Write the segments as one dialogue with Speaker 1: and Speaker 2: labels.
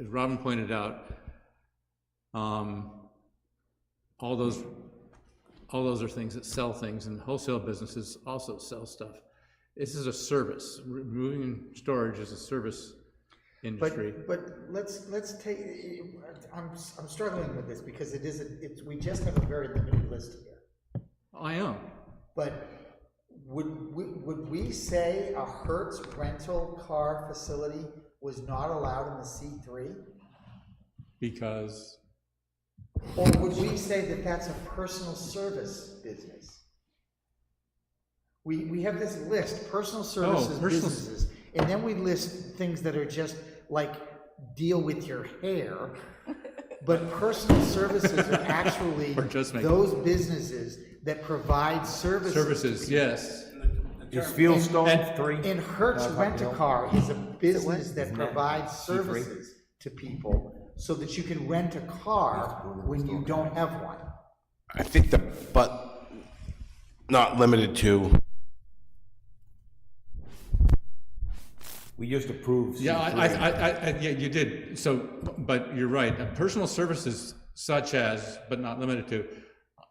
Speaker 1: as Robin pointed out, um, all those, all those are things that sell things, and wholesale businesses also sell stuff. This is a service, removing and storage is a service industry.
Speaker 2: But, but let's, let's take, I'm, I'm struggling with this because it is, a- it's, we just have a very limited list here.
Speaker 1: I am,
Speaker 2: But would, we- would we say a Hertz rental car facility was not allowed in the C three?
Speaker 1: because,
Speaker 2: Or would we say that that's a personal service business? We, we have this list, personal services
Speaker 1: Oh, personal-
Speaker 2: businesses, and then we list things that are just like deal with your hair. But personal services are actually
Speaker 1: Or just make-
Speaker 2: those businesses that provide services.
Speaker 1: services, yes.
Speaker 3: Is Fieldstone
Speaker 1: And-
Speaker 3: three?
Speaker 2: And Hertz
Speaker 3: Not
Speaker 2: Rent a
Speaker 3: Hotmail.
Speaker 2: Car is a business that
Speaker 3: Isn't that
Speaker 2: provides
Speaker 3: C3?
Speaker 2: services to people so that you can rent a car when you don't have one.
Speaker 4: I think the, but not limited to,
Speaker 3: We just approved.
Speaker 1: Yeah, I, I,
Speaker 3: C3.
Speaker 1: I, I- I, yeah, you did, so, but you're right, Uh, personal services such as, but not limited to,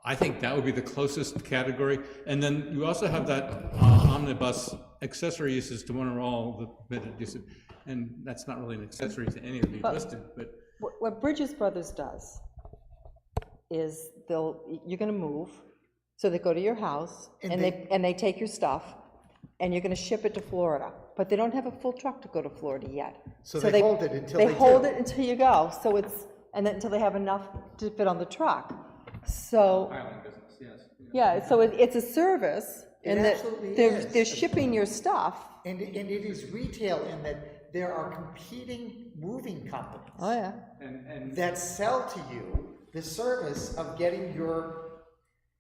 Speaker 1: I think that would be the closest category, and then you also have that uh, omnibus accessory uses to one or all the permitted uses, and that's not really an accessory to any of the listed, but,
Speaker 5: What what Bridges Brothers does is they'll, you're going to move, so they go to your house,
Speaker 2: And
Speaker 5: and they, and they take your stuff, and you're going to ship it to Florida, but they don't have a full truck to go to Florida yet.
Speaker 2: So they hold it until they
Speaker 5: They hold
Speaker 2: do.
Speaker 5: it until you go, so it's, and then until they have enough to fit on the truck, so. Yeah, so it, it's a service, and that
Speaker 2: absolutely
Speaker 5: they're,
Speaker 2: is.
Speaker 5: they're shipping your stuff.
Speaker 2: And, and it is retail in that there are competing moving companies
Speaker 5: Oh, yeah.
Speaker 1: and, and
Speaker 2: that sell to you the service of getting your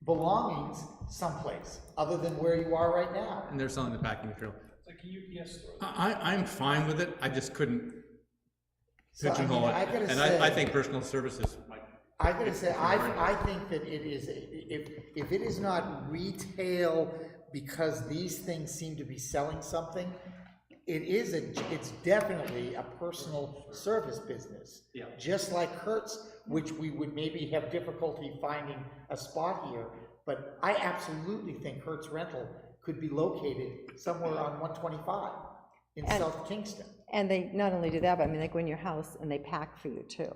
Speaker 2: belongings someplace other than where you are right now.
Speaker 1: and they're selling the packing material. It's like a UPS store. I, I- I'm fine with it, I just couldn't
Speaker 2: So, I mean,
Speaker 1: pigeonhole
Speaker 2: I
Speaker 1: it,
Speaker 2: gotta
Speaker 1: and I, I
Speaker 2: say-
Speaker 1: think personal services might
Speaker 2: I gotta say, I, I think that it is, if, if it is not retail because these things seem to be selling something, it is a, it's definitely a personal service business. Yeah. Just like Hertz, which we would maybe have difficulty finding a spot here, but I absolutely think Hertz Rental could be located somewhere on one twenty-five in
Speaker 5: And-
Speaker 2: South Kingston.
Speaker 5: And they not only do that, but I mean, they go in your house and they pack for you too.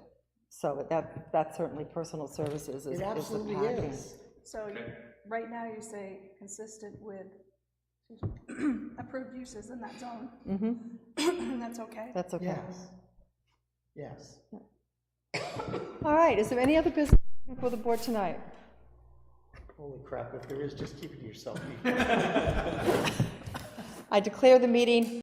Speaker 5: So that, that's certainly personal services is, is
Speaker 2: It
Speaker 5: the
Speaker 2: absolutely
Speaker 5: packing.
Speaker 2: is.
Speaker 6: So you- right now you say consistent with approved uses in that zone. And that's okay.
Speaker 5: That's okay.
Speaker 2: Yes. Yes.
Speaker 5: All right, is there any other business before the board tonight?
Speaker 2: Holy crap, if there is, just keep it to yourself.
Speaker 5: I declare the meeting